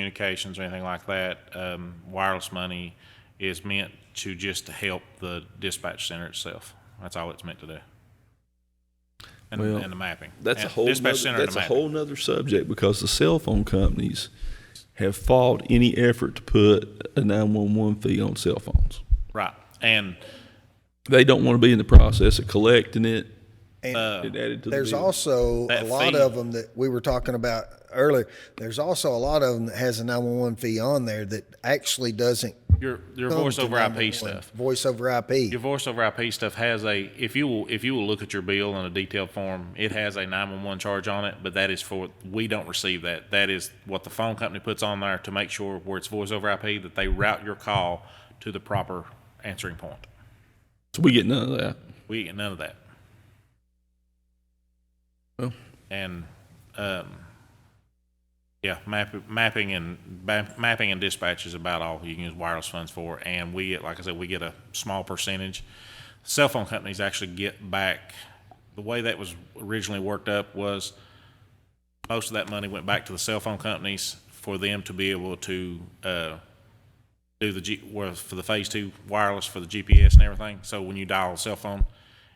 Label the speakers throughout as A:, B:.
A: communications or anything like that, um, wireless money is meant to just to help the dispatch center itself. That's all it's meant to do. And,
B: Well,
A: and the mapping.
B: That's a
A: And
B: whole
A: dispatch
B: nother,
A: center and
B: that's
A: the
B: a
A: mapping.
B: whole nother subject because the cell phone companies have fought any effort to put a nine one one fee on cell phones.
A: Right. And
B: They don't want to be in the process of collecting it
C: And
A: Uh,
B: and added to the
C: there's
B: bill.
C: also a
A: that
C: lot
A: fee-
C: of them that we were talking about earlier. There's also a lot of them that has a 911 fee on there that actually doesn't.
A: your, your
C: come
A: voice
C: to
A: over IP
C: 911.
A: stuff.
C: Voice over IP.
A: Your voice over IP stuff has a if you will if you will look at your bill in a detailed form, it has a nine one one charge on it, but that is for we don't receive that. That is what the phone company puts on there to make sure where it's voice over IP that they route your call to the proper answering point.
B: So we get none of that.
A: We get none of that.
B: Well.
A: And um, yeah, map, mapping and ba- mapping and dispatch is about all you can use wireless funds for. And we get, like I said, we get a small percentage. Cell phone companies actually get back. The way that was originally worked up was most of that money went back to the cell phone companies for them to be able to uh, do the G, well, for the phase two wireless for the GPS and everything. So when you dial a cell phone,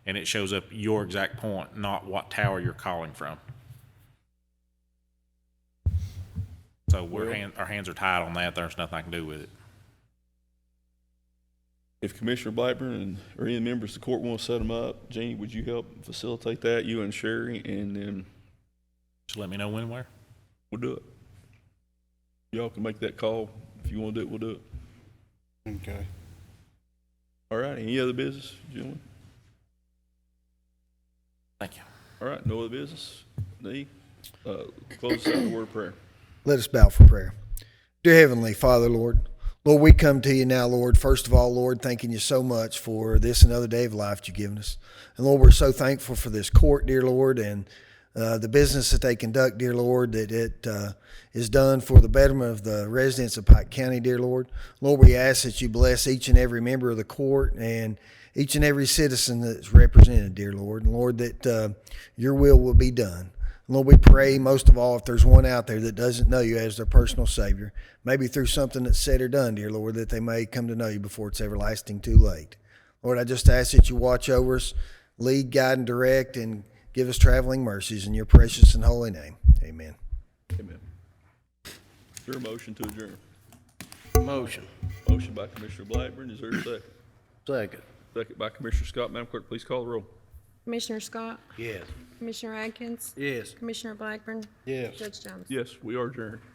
A: and it shows up your exact point, not what tower you're calling from. So we're hand, our hands are tied on that. There's nothing I can do with it.
B: If Commissioner Blackburn and, or any members of the court want to set them up, Jeannie, would you help facilitate that, you and Sherry, and then
A: Just let me know when and where.
B: we'll do it. Y'all can make that call. If you want to do it, we'll do it.
D: Okay.
B: All right, any other business, gentlemen?
A: Thank you.
B: All right, no other business? D, uh, close us out with a word of prayer.
C: Let us bow for prayer. Dear Heavenly Father, Lord, Lord, we come to you now, Lord. First of all, Lord, thanking you so much for this another day of life that you've given us. And Lord, we're so thankful for this court, dear Lord, and uh, the business that they conduct, dear Lord, that it uh, is done for the betterment of the residents of Pike County, dear Lord. Lord, we ask that you bless each and every member of the court and each and every citizen that's represented, dear Lord. And Lord, that uh, your will will be done. Lord, we pray most of all if there's one out there that doesn't know you as their personal Savior, maybe through something that's said or done, dear Lord, that they may come to know you before it's everlasting too late. Lord, I just ask that you watch over us, lead, guide, and direct, and give us traveling mercies in your precious and holy name. Amen.
B: Amen. Your motion to adjourn.
D: Motion.
B: Motion by Commissioner Blackburn, is there a second?
D: Second.
B: Second by Commissioner Scott. Madam Clerk, please call the roll.
E: Commissioner Scott?
D: Yes.
E: Commissioner Atkins?
D: Yes.
E: Commissioner Blackburn?
D: Yes.
E: Judge Jones?
B: Yes, we are adjourned.